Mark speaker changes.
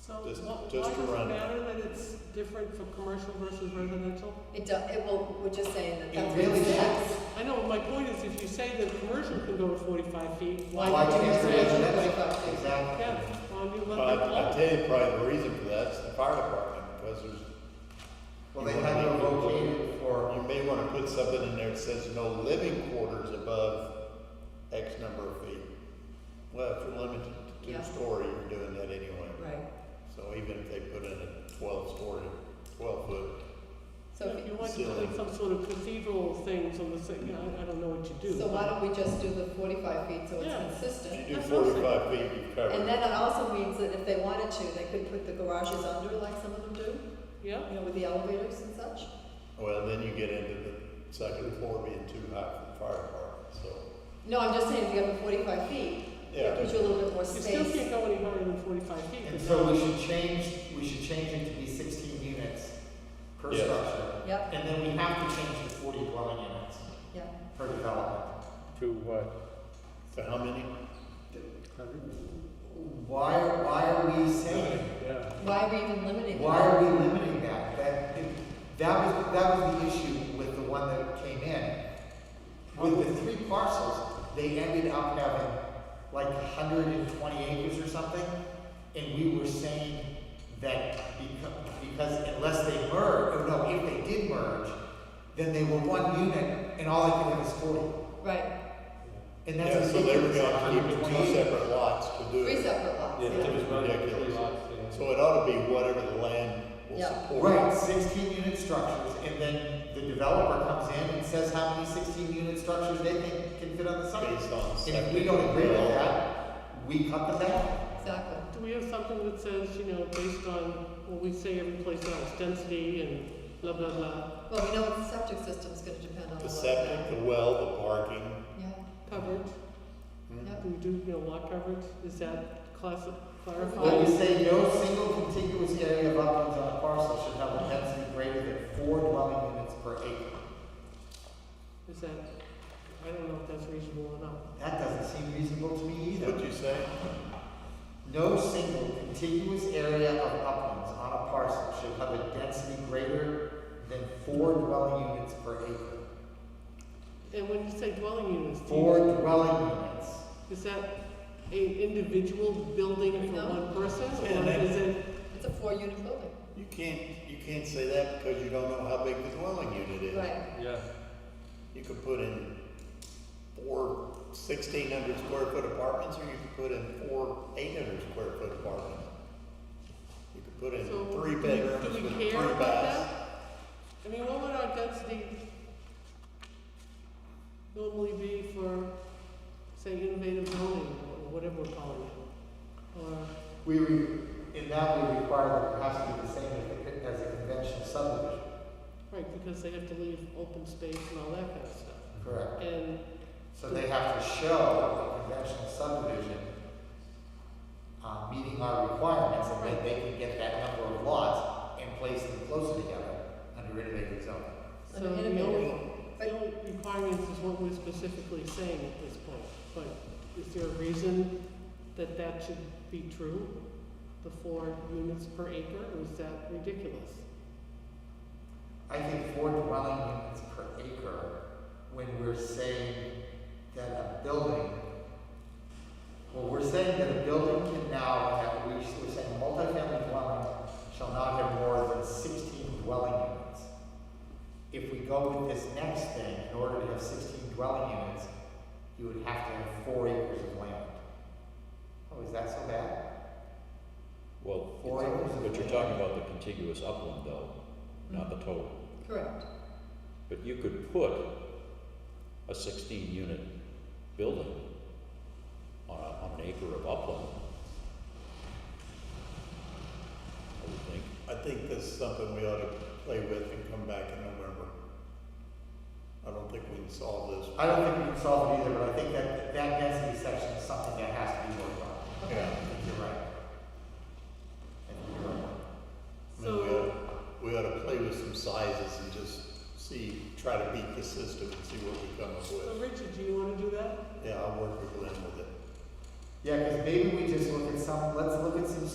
Speaker 1: So
Speaker 2: Just-
Speaker 1: why
Speaker 2: just
Speaker 1: does
Speaker 2: to
Speaker 1: it
Speaker 2: run.
Speaker 1: matter that it's different for commercial versus residential?
Speaker 3: It do, it will, we're just saying that
Speaker 2: It
Speaker 3: that's.
Speaker 2: really
Speaker 3: what it
Speaker 2: should.
Speaker 3: says.
Speaker 1: I know, but my point is if you say that commercial can go to forty-five feet, why?
Speaker 3: Why can't
Speaker 1: can't
Speaker 3: residential?
Speaker 1: residential?
Speaker 3: Exactly.
Speaker 1: Yeah, well, I mean,
Speaker 2: But
Speaker 1: let that
Speaker 2: I
Speaker 1: fly.
Speaker 2: I tell you probably the reason for that is the fire department, because there's.
Speaker 4: Well, they had to locate it for,
Speaker 2: You may wanna put something in there that says no living quarters above X number of feet. Well, if you're limited to
Speaker 3: Yeah.
Speaker 2: two story, you're doing that anyway.
Speaker 3: Right,
Speaker 2: So even if they put in a twelve story, twelve foot,
Speaker 3: so
Speaker 1: If
Speaker 3: if
Speaker 1: you
Speaker 3: you,
Speaker 1: want to
Speaker 2: Silly.
Speaker 1: put some sort of cathedral things on the, si- you know, I I don't know what you do.
Speaker 3: so why
Speaker 1: but-
Speaker 3: don't we just do the forty-five feet so
Speaker 1: Yeah.
Speaker 3: it's
Speaker 2: if
Speaker 3: consistent?
Speaker 2: you do
Speaker 1: That's what I'm saying.
Speaker 2: forty-five feet, you've
Speaker 3: And
Speaker 2: covered.
Speaker 3: then it also means that if they wanted to, they could put the garages under like some of them do,
Speaker 1: Yeah,
Speaker 3: you know, with the elevators and such.
Speaker 2: Well, then you get into the second floor being too high for the fire department, so,
Speaker 3: No, I'm just saying if you have the forty-five feet, it
Speaker 2: yeah.
Speaker 3: gives you a little bit more
Speaker 1: you still
Speaker 3: space.
Speaker 1: can't go any higher than forty-five feet.
Speaker 4: and
Speaker 1: but
Speaker 4: so
Speaker 1: now-
Speaker 4: we should change, we should change it to be sixteen units per
Speaker 2: Yes.
Speaker 4: structure.
Speaker 3: Yep,
Speaker 4: And then we have to change to forty dwelling units
Speaker 3: yep.
Speaker 4: per development.
Speaker 5: To what?
Speaker 2: So how many?
Speaker 4: Why, why are we saying,
Speaker 5: Yeah.
Speaker 3: Why are we even limiting
Speaker 4: why
Speaker 3: that?
Speaker 4: are we limiting that? That, that was, that was the issue with the one that came in. With the three parcels, they ended up having like hundred and twenty acres or something. And we were saying that becau- because unless they merge, or no, if they did merge, then they were one unit and all they could have is forty.
Speaker 3: Right,
Speaker 4: And
Speaker 2: Yeah,
Speaker 4: that's
Speaker 2: so they were
Speaker 4: ridiculous.
Speaker 2: gonna keep it two
Speaker 4: 120 acres.
Speaker 2: separate lots to do
Speaker 3: three
Speaker 2: it.
Speaker 3: separate lots,
Speaker 5: Yeah, it
Speaker 3: yeah.
Speaker 5: was running really
Speaker 2: Ridiculous.
Speaker 5: lots, yeah.
Speaker 2: So it ought to be whatever the land will
Speaker 3: Yeah.
Speaker 2: support.
Speaker 4: Right, sixteen unit structures, and then the developer comes in and says how many sixteen unit structures they think can fit on the site.
Speaker 2: Based on
Speaker 4: And if
Speaker 2: septic.
Speaker 4: we don't agree with that, we cut them down.
Speaker 3: Exactly.
Speaker 1: Do we have something that says, you know, based on what we say every place else, density and blah, blah, blah,
Speaker 3: Well, we know what the septic system's gonna depend on a lot
Speaker 2: The
Speaker 3: of
Speaker 2: septic,
Speaker 3: that.
Speaker 2: the well, the parking.
Speaker 3: Yeah,
Speaker 1: coverage? Do we do, you know, lot coverage? Is that class,
Speaker 4: Well, we
Speaker 1: clarified?
Speaker 4: say no single contiguous area of uplands on a parcel should have a density greater than four dwelling units per acre.
Speaker 1: Is that, I don't know if that's reasonable or not.
Speaker 4: That doesn't seem reasonable to me either.
Speaker 2: What'd Hmm? you say?
Speaker 4: No single contiguous area of uplands on a parcel should have a density greater than four dwelling units per acre.
Speaker 1: And when you say dwelling units, do
Speaker 4: Four
Speaker 1: you,
Speaker 4: dwelling units.
Speaker 1: is that an individual building for
Speaker 3: No.
Speaker 1: one person?
Speaker 2: Yeah,
Speaker 1: Or
Speaker 2: that-
Speaker 1: is it,
Speaker 3: it's a four-unit building.
Speaker 2: You can't, you can't say that because you don't know how big the dwelling unit is.
Speaker 3: Right.
Speaker 5: Yeah.
Speaker 2: You could put in four sixteen hundred square foot apartments, or you could put in four eight hundred square foot apartments. You could put in
Speaker 1: so
Speaker 2: three
Speaker 1: do we-
Speaker 2: bedrooms
Speaker 1: do
Speaker 2: with
Speaker 1: we
Speaker 2: three
Speaker 1: care about
Speaker 2: baths.
Speaker 1: that? I mean, what would our density normally be for, say, innovative zoning or whatever we're calling it? Or
Speaker 4: We, re- in that we require that it has to be the same as a- as a conventional subdivision.
Speaker 1: Right, because they have to leave open space and all that kind of stuff.
Speaker 4: Correct.
Speaker 1: And,
Speaker 4: So they have to show a conventional subdivision, uh, meeting our requirements, and then they can get that number of lots and place them closer together under innovative zoning.
Speaker 1: so
Speaker 3: An
Speaker 1: the
Speaker 3: innovative-
Speaker 1: only,
Speaker 3: but-
Speaker 1: the only requirements is what we're specifically saying at this point. But is there a reason that that should be true? The four units per acre, or is that ridiculous?
Speaker 4: I think four dwelling units per acre, when we're saying that a building, well, we're saying that a building can now have, we- we're saying a multifamily dwelling shall not have more than sixteen dwelling units. If we go with this next thing, in order to have sixteen dwelling units, you would have to have four acres of land. Oh, is that so bad?
Speaker 6: Well,
Speaker 4: Four acres of
Speaker 6: but you're
Speaker 4: land.
Speaker 6: talking about the contiguous upland though, not the total.
Speaker 3: Correct.
Speaker 6: But you could put a sixteen unit building on a, on an acre of upland. I would think.
Speaker 2: I think this is something we ought to play with and come back in November. I don't think we can solve this.
Speaker 4: I don't think we can solve it either, but I think that, that density section is something that has to be worked on.
Speaker 2: Yeah.
Speaker 4: I think you're right. I think you're right.
Speaker 2: I mean, we
Speaker 1: So-
Speaker 2: ought, we ought to play with some sizes and just see, try to beat the system and see what we come up
Speaker 1: So
Speaker 2: with.
Speaker 1: Richard, do you wanna do that?
Speaker 2: Yeah, I'll work with Lynn with it.
Speaker 4: Yeah, because maybe we just look at some, let's look at some